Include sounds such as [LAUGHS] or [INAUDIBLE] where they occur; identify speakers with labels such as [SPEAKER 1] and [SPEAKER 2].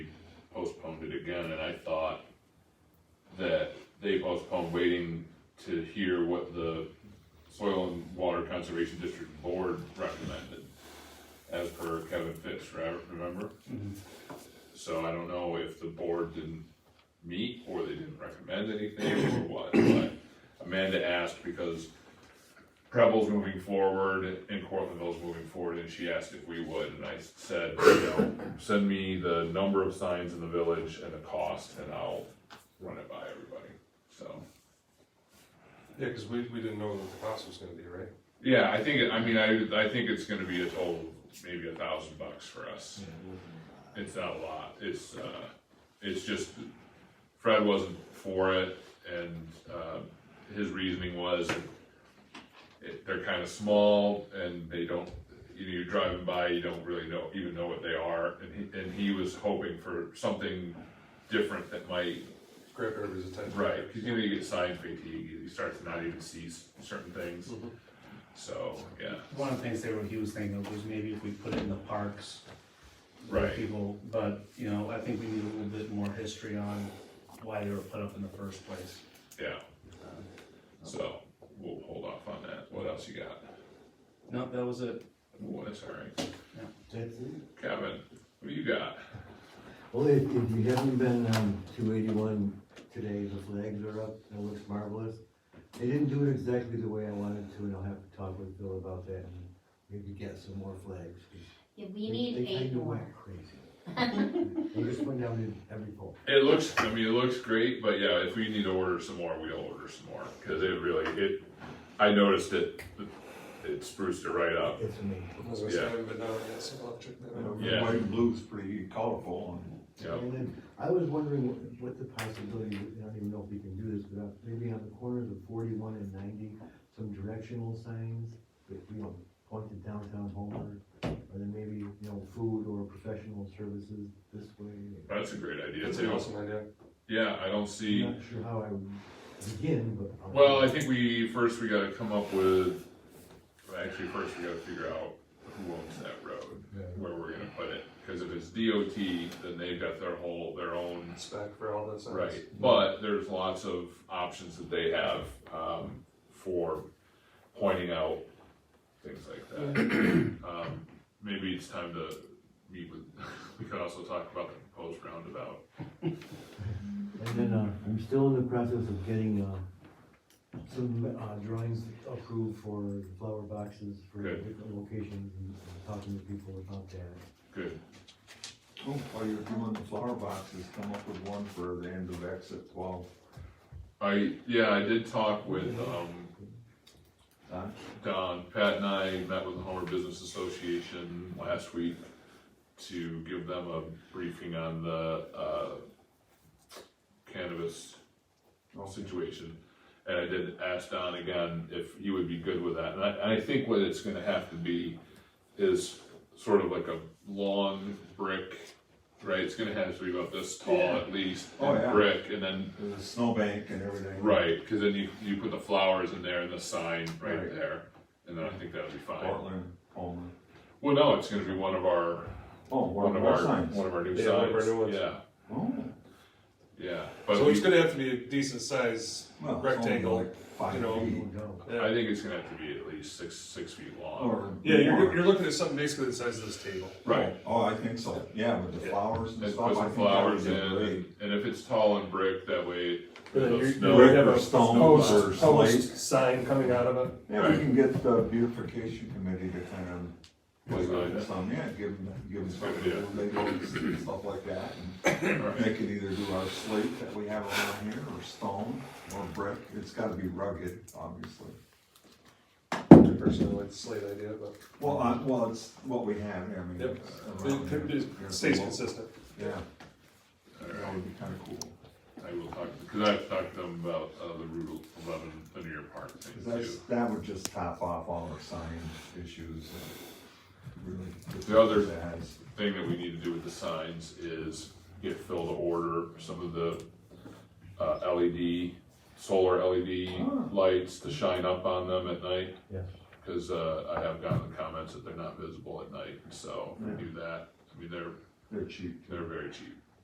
[SPEAKER 1] again, and I thought that they postponed waiting to hear what the Soil and Water Conservation District Board recommended, as per Kevin Fitz, right, remember? So I don't know if the board didn't meet, or they didn't recommend anything, or what, but Amanda asked because Preble's moving forward and Cortlandville's moving forward, and she asked if we would, and I said, you know, send me the number of signs in the village and the cost, and I'll run it by everybody, so.
[SPEAKER 2] Yeah, because we, we didn't know what the cost was gonna be, right?
[SPEAKER 1] Yeah, I think, I mean, I, I think it's gonna be a total, of maybe a thousand bucks for us. It's not a lot, it's, uh, it's just, Fred wasn't for it, and, uh, his reasoning was it, they're kinda small, and they don't, you know, you're driving by, you don't really know, even know what they are, and he, and he was hoping for something different that might
[SPEAKER 2] Grab everybody's attention.
[SPEAKER 1] Right, he's gonna get sign fatigue, he starts to not even see s- certain things, so, yeah,
[SPEAKER 3] One of the things they were, he was thinking of was maybe if we put it in the parks. where
[SPEAKER 1] right,
[SPEAKER 3] People, but, you know, I think we need a little bit more history on why they were put up in the first place.
[SPEAKER 1] yeah. So, we'll hold off on that, what else you got?
[SPEAKER 3] No, that was it.
[SPEAKER 1] Ooh, that's alright,
[SPEAKER 4] That's it.
[SPEAKER 1] Kevin, what you got?
[SPEAKER 4] Well, if, if you haven't been, um, two eighty-one today, the flags are up, and it looks marvelous. They didn't do it exactly the way I wanted to, and I'll have to talk with Bill about that, and maybe get some more flags. 'cause
[SPEAKER 5] Yeah, we
[SPEAKER 4] they-
[SPEAKER 5] need
[SPEAKER 4] they
[SPEAKER 5] eight
[SPEAKER 4] kinda
[SPEAKER 5] more.
[SPEAKER 4] went Crazy. They just went down in every pole.
[SPEAKER 1] It looks, I mean, it looks great, but yeah, if we need to order some more, we'll order some more, cause it really, it, I noticed it, it spruced it right up.
[SPEAKER 4] It's amazing.
[SPEAKER 2] As I said,
[SPEAKER 1] Yeah.
[SPEAKER 2] I haven't been down there yet, so I'll check that out.
[SPEAKER 1] Yeah.
[SPEAKER 6] White and blue's pretty colorful
[SPEAKER 1] Yeah.
[SPEAKER 4] And then, I was wondering what- what the possibility, I don't even know if we can do this, but uh, maybe on the corners of forty-one and ninety, some directional signs that, you know, point to downtown Homer, or then maybe, you know, food or professional services this way.
[SPEAKER 1] That's a great idea
[SPEAKER 2] That's an
[SPEAKER 1] too,
[SPEAKER 2] awesome idea.
[SPEAKER 1] yeah, I don't see.
[SPEAKER 4] I'm not sure how I would begin, but. I'll-
[SPEAKER 1] Well, I think we, first we gotta come up with, well, actually, first we gotta figure out who owns that road,
[SPEAKER 4] Yeah.
[SPEAKER 1] where we're gonna put it, cause if it's DOT, then they've got their whole, their own.
[SPEAKER 2] Spec for all that stuff.
[SPEAKER 1] Right, but there's lots of options that they have, um, for pointing out things like that. Um, maybe it's time to meet with, [LAUGHS] we could also talk about the proposed roundabout.
[SPEAKER 4] And then, uh, I'm still in the process of getting, uh, some, uh, drawings approved for the flower boxes for
[SPEAKER 1] Good.
[SPEAKER 4] different locations and talking to people about that.
[SPEAKER 1] Good,
[SPEAKER 6] and, oh, while you're doing the flower boxes, come up with one for the end of exit twelve.
[SPEAKER 1] I, yeah, I did talk with, um,
[SPEAKER 6] Huh?
[SPEAKER 1] Don, Pat and I met with the Homer Business Association last week to give them a briefing on the, uh, cannabis situation. And I did ask Don again if he would be good with that, and I, and I think what it's gonna have to be is sort of like a long brick, right, it's gonna have to be about this tall at least,
[SPEAKER 6] Oh,
[SPEAKER 1] and
[SPEAKER 6] yeah.
[SPEAKER 1] brick, and then
[SPEAKER 6] There's a snowbank and everything.
[SPEAKER 1] Right, cause then you, you put the flowers in there and the sign right
[SPEAKER 6] Right.
[SPEAKER 1] there, and then I think that'll be fine.
[SPEAKER 6] Portland, Homer.
[SPEAKER 1] Well, no, it's gonna be one of our,
[SPEAKER 6] Oh,
[SPEAKER 1] one
[SPEAKER 6] one
[SPEAKER 1] of
[SPEAKER 6] of our
[SPEAKER 1] our,
[SPEAKER 6] signs.
[SPEAKER 1] one of our new
[SPEAKER 2] Yeah, one of our
[SPEAKER 1] signs,
[SPEAKER 2] new ones.
[SPEAKER 1] yeah,
[SPEAKER 6] Oh,
[SPEAKER 1] yeah. But
[SPEAKER 2] So
[SPEAKER 1] we,
[SPEAKER 2] it's gonna have to be a decent size
[SPEAKER 6] well, it's only
[SPEAKER 2] rectangle.
[SPEAKER 6] like five
[SPEAKER 2] you know,
[SPEAKER 6] feet.
[SPEAKER 4] Go.
[SPEAKER 2] Yeah.
[SPEAKER 1] I think it's gonna have to be at least six, six feet long,
[SPEAKER 6] Or
[SPEAKER 2] Yeah, you're,
[SPEAKER 6] more.
[SPEAKER 2] you're looking at something basically the size of this table.
[SPEAKER 1] right?
[SPEAKER 6] Oh, I think so, yeah, with the
[SPEAKER 2] Yeah.
[SPEAKER 6] flowers and
[SPEAKER 1] And
[SPEAKER 6] stuff, I
[SPEAKER 1] put some
[SPEAKER 6] think that would
[SPEAKER 1] flowers in,
[SPEAKER 6] be great.
[SPEAKER 1] and and if it's tall and brick, that way,
[SPEAKER 7] Then
[SPEAKER 1] the
[SPEAKER 7] you're-
[SPEAKER 1] snow,
[SPEAKER 7] you're- have
[SPEAKER 6] Brick or
[SPEAKER 7] a
[SPEAKER 6] stones or
[SPEAKER 7] Post,
[SPEAKER 6] slate.
[SPEAKER 7] post sign coming out of it.
[SPEAKER 6] Yeah, we can get the beautification committee to kind of
[SPEAKER 1] Was like that.
[SPEAKER 6] Some, yeah, give them, give them
[SPEAKER 1] Good
[SPEAKER 6] some
[SPEAKER 1] idea.
[SPEAKER 6] labels and stuff like that. And They could either do our slate that we have around here, or stone, or brick, it's gotta be rugged, obviously.
[SPEAKER 2] I personally like the slate idea, but
[SPEAKER 6] Well, I, well, it's what we have, I mean.
[SPEAKER 2] Yep.
[SPEAKER 6] it's
[SPEAKER 2] it,
[SPEAKER 6] around
[SPEAKER 2] it-
[SPEAKER 6] here.
[SPEAKER 2] it stays consistent.
[SPEAKER 6] Yeah, that would be kinda cool,
[SPEAKER 1] I will talk, cause I've talked to them about, uh, the Route eleven linear park thing
[SPEAKER 6] 'Cause
[SPEAKER 1] too.
[SPEAKER 6] that's, that would just top off all our sign issues and really.
[SPEAKER 1] The other-
[SPEAKER 6] That's-
[SPEAKER 1] thing that we need to do with the signs is get Phil to order some of the uh, LED, solar
[SPEAKER 6] Ah.
[SPEAKER 1] LED lights to shine up on them at night.
[SPEAKER 4] Yeah.
[SPEAKER 1] Cause, uh, I have gotten the comments that they're not visible at night, so if we do that, I mean, they're,
[SPEAKER 6] They're cheap.
[SPEAKER 1] they're very cheap,